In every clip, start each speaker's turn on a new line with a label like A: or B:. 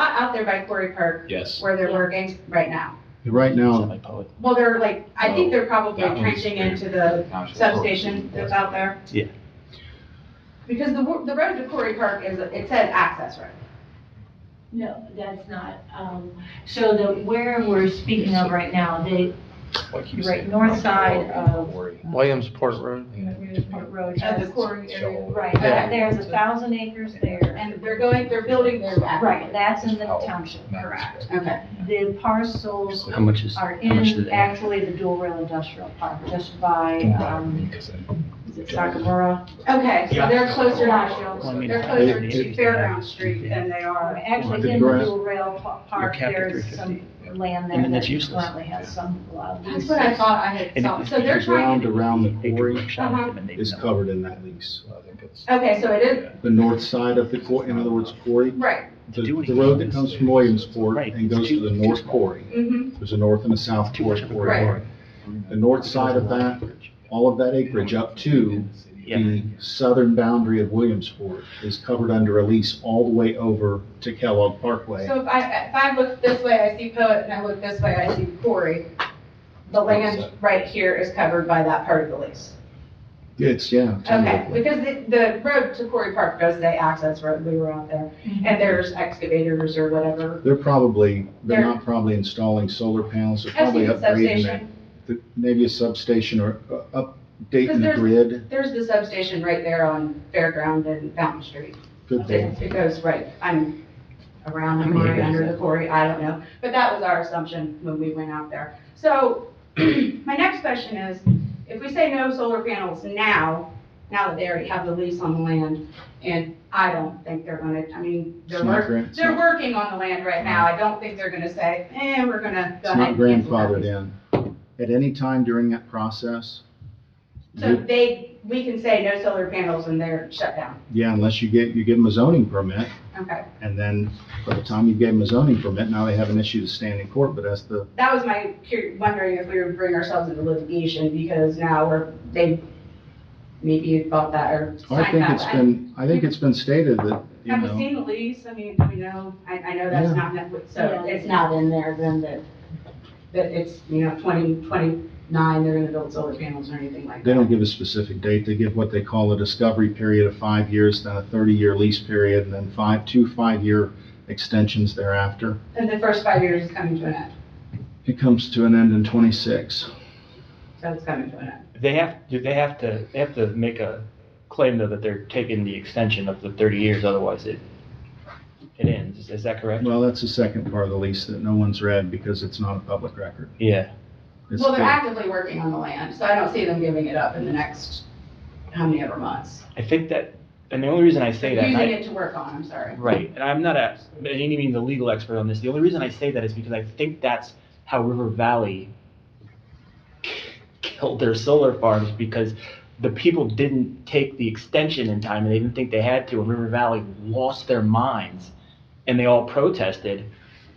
A: out there by Quarry Park
B: Yes.
A: where they're working right now.
C: Right now,
A: Well, they're like, I think they're probably
B: That one's
A: trenching
B: pretty-
A: into the substation that's out there.
D: Yeah.
A: Because the, wo- the road to Quarry Park is, it says access road.
E: No, that's not, um, so the, where we're speaking of right now, the
B: Like you
E: Right,
B: said,
E: north
B: not
E: side
B: all
E: of-
B: quarry.
D: Williamsport Road.
E: Newport Road
A: At
E: has,
A: the quarry area.
B: So-
E: right, that- there's a thousand acres there.
A: And they're going, they're building their back.
E: Right, that's in the
D: Oh,
E: township, correct.
A: Okay.
E: The parcels
D: How much is,
E: are
D: how much do
E: in
D: they have?
E: actually the dual rail industrial park, just by, um,
B: Because I-
E: is it Sagamura?
A: Okay, so they're closer
B: Well,
A: to,
B: I mean,
A: they're closer to
D: they-
A: Fairground Street than they
E: Um,
A: are.
C: Well,
E: Actually,
C: the
E: in the
C: grass-
E: dual rail pa- park,
D: capped at
E: there's
D: 350,
E: some land
D: I
E: there
D: mean, that's
E: that
D: useless.
E: currently has some. uh,
A: That's what I thought I had
D: And
A: saw.
D: if
A: So they're
C: the
A: trying
C: ground
A: to,
C: around the
D: They could
C: quarry
D: push on
A: Uh-huh.
D: them and they'd
C: is
D: know.
C: covered in that lease.
B: I think it's-
A: okay, so it is,
C: The north side of the quarry, in other words, quarry,
A: right.
C: the, the road that comes from Williamsport
D: Right.
C: and goes to the north quarry.
A: hmm
C: There's a north and a south
D: Too
C: quarry.
D: much of a
C: corridor. The north side of that, all of that acreage up to
D: Yeah,
C: the southern boundary of Williamsport is covered under a lease all the way over to Kellogg Parkway.
A: So if I, if I look this way, I see Poet, and I look this way, I see Corey. The land right here is covered by that part of the lease.
C: It's, yeah. it's under
A: Okay,
C: the-
A: because the, the road to Corey Park does say access road, we were out there,
E: Mm-hmm.
A: and there's excavators or whatever.
C: They're probably, they're
A: They're-
C: not probably installing solar panels, they're
A: I've
C: probably
A: seen the
C: upgrading that.
A: substation,
C: th- Maybe a substation or uh,
A: Because
C: updating the
A: there's-
C: grid,
A: there's the substation right there on Fairground and Fountain Street.
C: could be.
A: It it goes right, I'm around the quarry, under the quarry, I don't know, but that was our assumption when we went out there. So, my next question is, if we say no solar panels now, now that they already have the lease on the land, and I don't think they're gonna, I mean,
C: It's
A: they're
C: not
A: working,
C: gran- it's
A: they're
C: not
A: working on the land right now, I don't think they're gonna say, eh, we're gonna. go
C: it's not
A: ahead and cancel that
C: grandfathered
A: lease."
C: in. At any time during that process,
A: So
C: you-
A: they, we can say no solar panels and they're shut down,
C: yeah, unless you get, you give them a zoning permit,
A: okay.
C: and then by the time you gave them a zoning permit, now they have an issue to stand in court, but that's the,
A: That was my cur- wondering if we would bring ourselves into litigation because now we're, they maybe bought that or
C: I
A: signed
C: think
A: that.
C: it's been, I think it's been stated that, you
A: Have we
C: know,
A: seen the lease? I mean, we know, I, I know that's
C: Yeah.
A: not, in it, so
E: Yeah.
A: it's not in there then that, that it's, you know, twenty, twenty-nine, they're gonna build solar panels or anything like that.
C: they don't give a specific date, they give what they call a discovery period of five years, then a thirty-year lease period, and then five, two five-year extensions thereafter.
A: And the first five years is coming to an end,
C: It comes to an end in twenty-six.
A: so it's coming to an end.
F: They have, do they have to, they have to make a claim though that they're taking the extension of the thirty years, otherwise it, it ends, is that correct?
C: Well, that's the second part of the lease that no one's read because it's not a public record.
F: Yeah,
C: It's
A: Well, they're
C: the-
A: actively working on the land, so I don't see them giving it up in the next, how many ever months.
F: I think that, and the only reason I say that, and
A: Using
F: I-
A: it to work on, I'm sorry.
F: Right, and I'm not a, by any means a legal expert on this, the only reason I say that is because I think that's how River Valley killed their solar farms, because the people didn't take the extension in time, and they didn't think they had to, and River Valley lost their minds, and they all protested,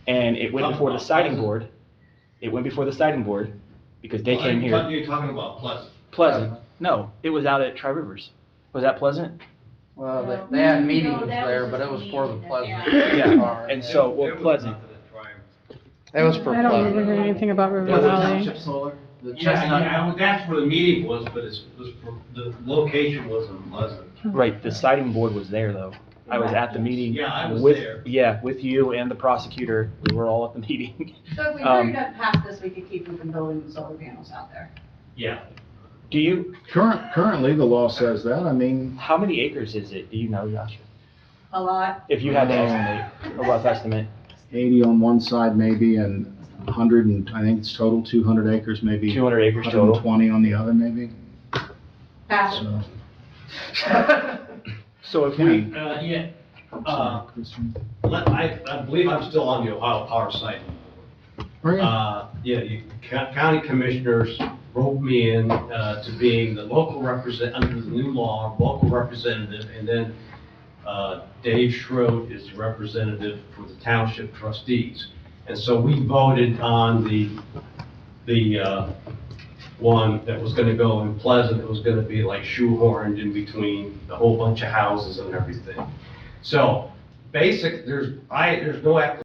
F: and it went before the siding board, it went before the siding board, because they came here.
G: You're talking about Pleasant.
F: Pleasant, no, it was out at Tri Rivers, was that Pleasant?
H: Well, they,
E: No.
H: Uh, they had
A: Mm-hmm.
E: No,
H: meetings
E: that
H: there,
E: was
H: but it
E: just
H: was for the
E: meeting.
H: pleasant.
F: Yeah.
H: part.
F: And so,
G: It
F: well,
G: was
F: Pleasant,
G: nothing to try and-
D: that was for
I: I don't
D: Pleasant.
I: remember hearing anything about River
H: Was it
I: Valley.
H: Township Solar? The
G: Yeah,
H: Chestnut?
G: yeah, well, that's where the meeting was, but it's, was for- the location was in Pleasant.
F: Right, the siding board was there though. I was at the meeting.
G: Yeah, I was
F: with-
G: there.
F: Yeah, with you and the prosecutor, we were all at the meeting.
A: So if we
F: Um,
A: hurry up past this, we could keep them from building the solar panels out there.
G: Yeah.
F: Do you,
C: Current, currently, the law says that. I mean,
F: how many acres is it? Do you know, Joshua?
A: A lot.
F: If you had to estimate, a rough estimate,
C: eighty on one side maybe and hundred and, I think it's total two hundred acres, maybe.
F: two hundred acres
C: Hundred and
F: total.
C: twenty on the other maybe,
A: Fast.
C: so.
F: So if we,
G: Uh, yeah, uh, let- I, I believe I'm still on the Ohio Power site.
C: Or, Oh, yeah,
G: Uh, yeah, you, co- county commissioners roped me in, uh, to being the local represent, under the new law, local representative, and then, uh, Dave Schroed is the representative for the township trustees. And so we voted on the, the, uh, one that was gonna go in Pleasant, it was gonna be like shoehorned in between a whole bunch of houses and everything. So, basic, there's, I, there's no application